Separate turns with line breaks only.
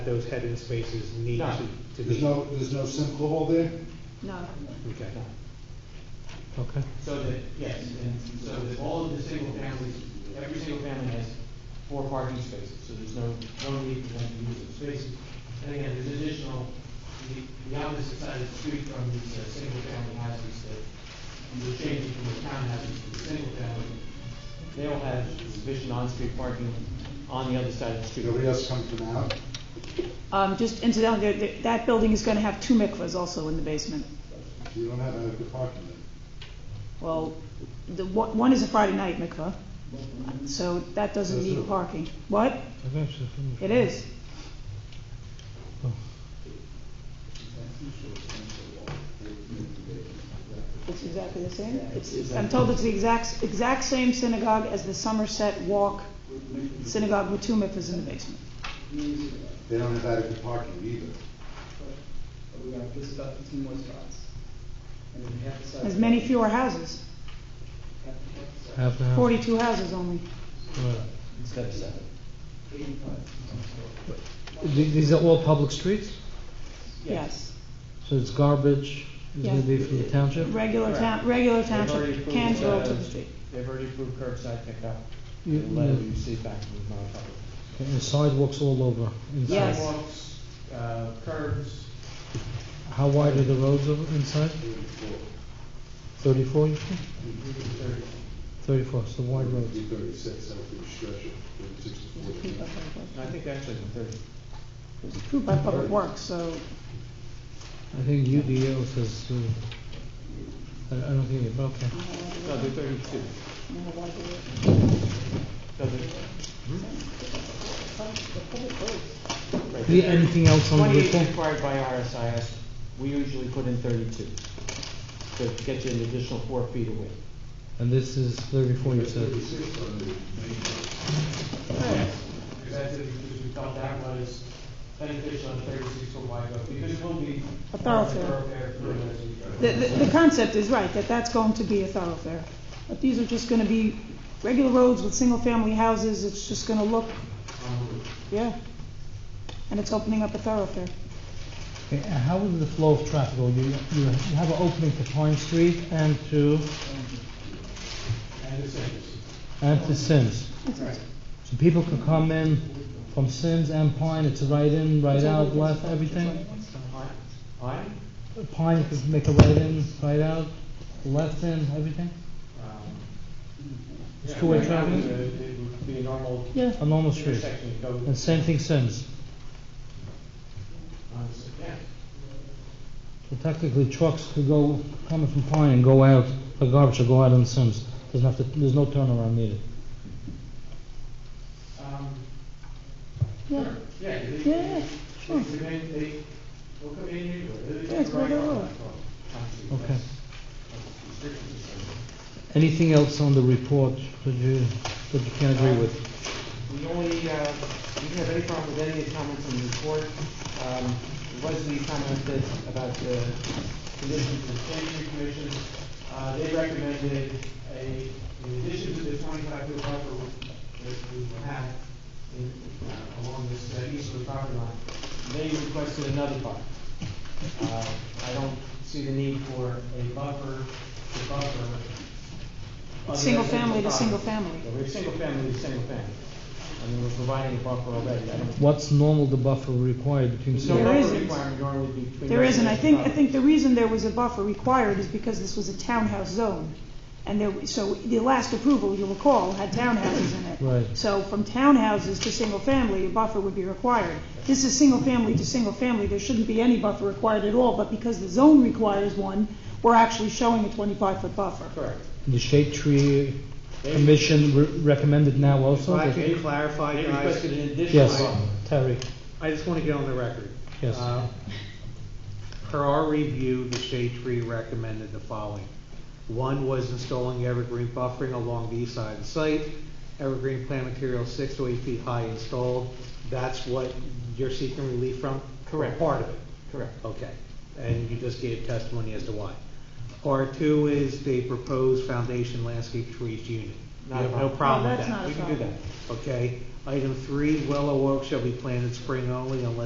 those head-in spaces need
No.
to, to
There's
be.
no, there's no sinkhole there?
No,
Okay.
Okay.
So that, yes, and so that all of the single families, every single family has four parking spaces, so there's no, no need for them to use those spaces. And again, there's additional, the, the opposite side of the street from these, uh, single family houses that we're changing from the townhouses to the single family. They all have sufficient on-street parking on the other side of the street.
Nobody else coming from out?
um, just incidentally, there- there- that building is gonna have two mikvahs also in the basement.
You don't have adequate parking there.
Well, the, one one is a Friday night mikvah, so that doesn't
That's
need
it.
parking. What? It is. It's exactly the same. It's, I'm told it's the exact, exact same synagogue as the Somerset Walk synagogue with two mikvahs in the basement.
They don't have adequate parking either.
We got just about fifteen more spots. And then half the size.
There's many fewer houses,
Half half the size.
Half an hour.
forty-two houses only.
Right.
Instead of seven.
Eighty-five.
Th- These are all public streets,
Yes.
so it's garbage, is gonna
Yeah.
be for the township?
Regular
Correct.
town, regular
They've already
township
approved,
cans roll
uh,
to the street.
They've already approved curbside pickup,
You-
the letter
you-
you see back from the Republic.
Okay, And sidewalks all over inside?
Yes.
Sidewalks, uh, curbs,
How wide are the roads over inside? Thirty-four, you said?
thirty.
Thirty-four, so wide roads.
Be thirty-six, that would be a stretch of thirty-six
It's
to
approved by
forty.
Public Works.
I think actually the thirty.
It's approved by Public Works, so
I think UDO says, uh, I I don't think, it- okay.
No, they're thirty-two. No, they're- Right.
The- Anything else on the
Twenty-eight
report?
required by RSIS, we usually put in thirty-two, to get you an additional four feet away.
And this is thirty-four, you said?
Thirty-six on the main
Because that's it, because we felt that was beneficial on thirty-six foot wide road, because it will be.
A thoroughfare.
for those who drive.
the, the, the concept is right, that that's going to be a thoroughfare. But these are just gonna be regular roads with single-family houses, it's just gonna look, yeah. And it's opening up a thoroughfare.
Okay, and how is the flow of traffic? Well, you, you you have an opening to Pine Street and to,
And the same.
and to Sims. So people can come in from Sims and Pine, it's right in, right out, left, everything?
Aye. Aye?
Pine, you can make a right in, right out, left in, everything?
Um,
It's
yeah,
two-way
right now, uh,
traffic?
It would be a normal
Yeah. A normal street.
intersection to go.
And same thing Sims.
on this- yeah.
So technically trucks could go, coming from Pine and go out, the garbage will go out on Sims. Doesn't have to, there's no turnaround needed.
Um,
Yeah.
sure. Yeah. they- they-
Yeah, sure.
They, may- they, will come in anywhere. They- they
Yeah, it's
can ride
right
on
over.
that road. Obviously,
Okay.
that's- that's restrictions and so on.
Anything else on the report that you, that you can agree with?
The only, uh, we didn't have any problem with any of the comments in the report. Um, Wesley commented about the conditions of the planning commission. Uh, they recommended a, in addition to the twenty-five foot buffer that we have in, uh, along this uh, easterly property line, they requested another buffer. Uh, I don't see the need for a buffer, to buffer. other
Single
residential
family to
property.
single family.
Yeah, we're single family to single family. I mean, we're providing a buffer already. I don't-
What's normal the buffer required between
There's
Sims?
no
There
buffer
isn't.
requirement normally between
There isn't, I think, I
residential
think the reason there was a buffer required is because this was a townhouse zone. And there, so the last approval, you'll recall, had townhouses in it.
Right.
So from townhouses to single-family, a buffer would be required. This is single-family to single-family, there shouldn't be any buffer required at all, but because the zone requires one, we're actually showing a 25-foot
property.
buffer.
Correct.
The shade tree
They-
commission re- recommended now also?
If I
that-
can clarify,
They
guys,
requested an additional
Yes,
buffer.
Terry,
I just want to get on the record.
Yes.
Uh, Per our review, the shade tree recommended the following. One was installing evergreen buffering along the east side of the site, evergreen plant material six to eight feet high installed. That's what you're seeking relief from?
Correct.
Part of it?
Correct.
Okay, and you just gave testimony as to why. R two is the proposed foundation landscape trees unit. You
Not a
have no
problem.
problem
No,
with
that's
that?
not a
We can do
problem.
that.
Okay, item three, willow oak shall be planted spring only unless